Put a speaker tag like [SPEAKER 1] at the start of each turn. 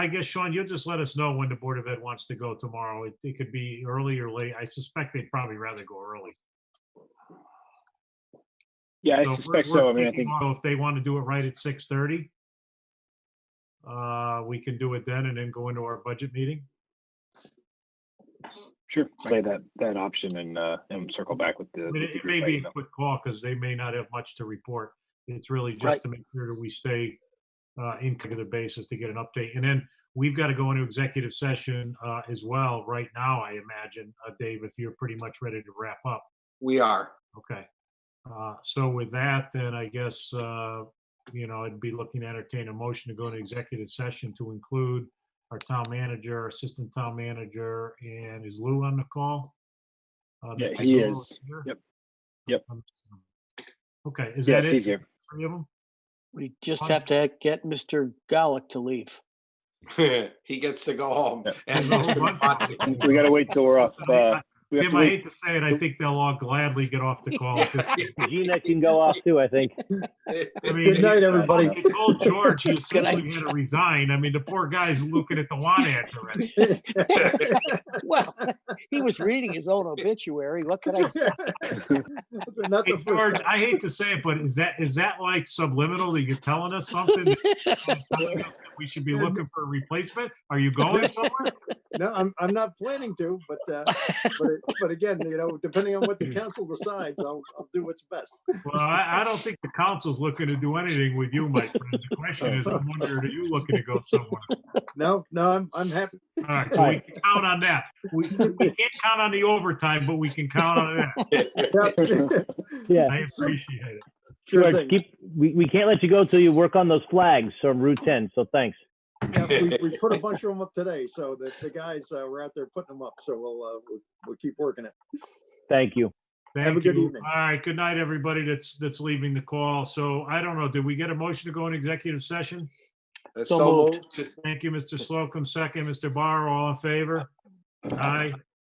[SPEAKER 1] I guess, Sean, you'll just let us know when the Board of Ed wants to go tomorrow. It, it could be early or late. I suspect they'd probably rather go early.
[SPEAKER 2] Yeah,
[SPEAKER 1] So
[SPEAKER 2] I
[SPEAKER 1] we're-
[SPEAKER 2] suspect
[SPEAKER 1] we're
[SPEAKER 2] so. I mean, I
[SPEAKER 1] thinking, oh,
[SPEAKER 2] think,
[SPEAKER 1] If they want to do it right at six thirty, uh, we can do it then and then go into our budget meeting.
[SPEAKER 2] sure, play that, that option and, uh, and circle back with the.
[SPEAKER 1] I
[SPEAKER 2] with
[SPEAKER 1] mean,
[SPEAKER 2] the
[SPEAKER 1] it it
[SPEAKER 2] group
[SPEAKER 1] may
[SPEAKER 2] by
[SPEAKER 1] be a
[SPEAKER 2] email.
[SPEAKER 1] quick call because they may not have much to report. It's really just
[SPEAKER 3] Right.
[SPEAKER 1] to make sure that we stay uh, in regular basis to get an update. And then we've got to go into executive session uh, as well right now, I imagine, uh, Dave, if you're pretty much ready to wrap up.
[SPEAKER 3] We are.
[SPEAKER 1] Okay. Uh, So with that, then I guess, uh, you know, I'd be looking to entertain a motion to go into executive session to include our town manager, assistant town manager, and is Lou on the call? Uh,
[SPEAKER 2] Yeah,
[SPEAKER 1] Mr.
[SPEAKER 2] he
[SPEAKER 1] Lou
[SPEAKER 2] is.
[SPEAKER 1] here?
[SPEAKER 2] Yep. Yep.
[SPEAKER 1] Okay, is
[SPEAKER 2] Yeah,
[SPEAKER 1] that
[SPEAKER 2] he's
[SPEAKER 1] it?
[SPEAKER 2] here.
[SPEAKER 1] Three of them?
[SPEAKER 4] We just
[SPEAKER 1] Fine.
[SPEAKER 4] have to get Mr. Gallick to leave.
[SPEAKER 3] he gets to go home.
[SPEAKER 2] Yeah.
[SPEAKER 3] And Mr. Bonte.
[SPEAKER 2] We gotta wait till we're off, uh, we have
[SPEAKER 1] Tim,
[SPEAKER 2] to
[SPEAKER 1] I
[SPEAKER 2] wait
[SPEAKER 1] hate to say it, I think they'll all gladly get off the call.
[SPEAKER 5] Gina can go off too, I think.
[SPEAKER 1] I mean,
[SPEAKER 6] Good night, everybody.
[SPEAKER 1] I told George he
[SPEAKER 4] Good
[SPEAKER 1] essentially had to resign. I mean, the poor guy's looking at the want ad already.
[SPEAKER 4] Well, he was reading his own obituary. What could I say?
[SPEAKER 6] Not
[SPEAKER 1] Hey,
[SPEAKER 6] the
[SPEAKER 1] George,
[SPEAKER 6] first time.
[SPEAKER 1] I hate to say it, but is that, is that like subliminal that you're telling us something? that- telling us that We should be looking for a replacement? Are you going somewhere?
[SPEAKER 6] No, I'm, I'm not planning to, but, uh, but, it- but again, you know, depending on what the council decides, I'll, I'll do what's best.
[SPEAKER 1] Well, I, I don't think the council's looking to do anything with you, my friend. The question is, I'm wondering, are you looking to go somewhere?
[SPEAKER 6] No, no, I'm, I'm happy.
[SPEAKER 1] All right, so we can count on that. We, we can't count on the overtime, but we can count on that.
[SPEAKER 6] Yeah.
[SPEAKER 1] I
[SPEAKER 5] Yeah.
[SPEAKER 1] appreciate it.
[SPEAKER 6] Sure
[SPEAKER 5] George,
[SPEAKER 6] thing.
[SPEAKER 5] keep, we, we can't let you go till you work on those flags from Route 10, so thanks.
[SPEAKER 6] Yeah, We we put a bunch of them up today, so the, the guys, uh, were out there putting them up, so we'll, uh, we'll, we'll keep working it.
[SPEAKER 5] Thank you.
[SPEAKER 6] Have a
[SPEAKER 1] Thank
[SPEAKER 6] good
[SPEAKER 1] you.
[SPEAKER 6] evening.
[SPEAKER 1] All right, good night, everybody that's, that's leaving the call. So I don't know, did we get a motion to go into executive session?
[SPEAKER 3] So moved.
[SPEAKER 1] Thank you, Mr. Slocum. Second, Mr. Barr, all in favor? Aye.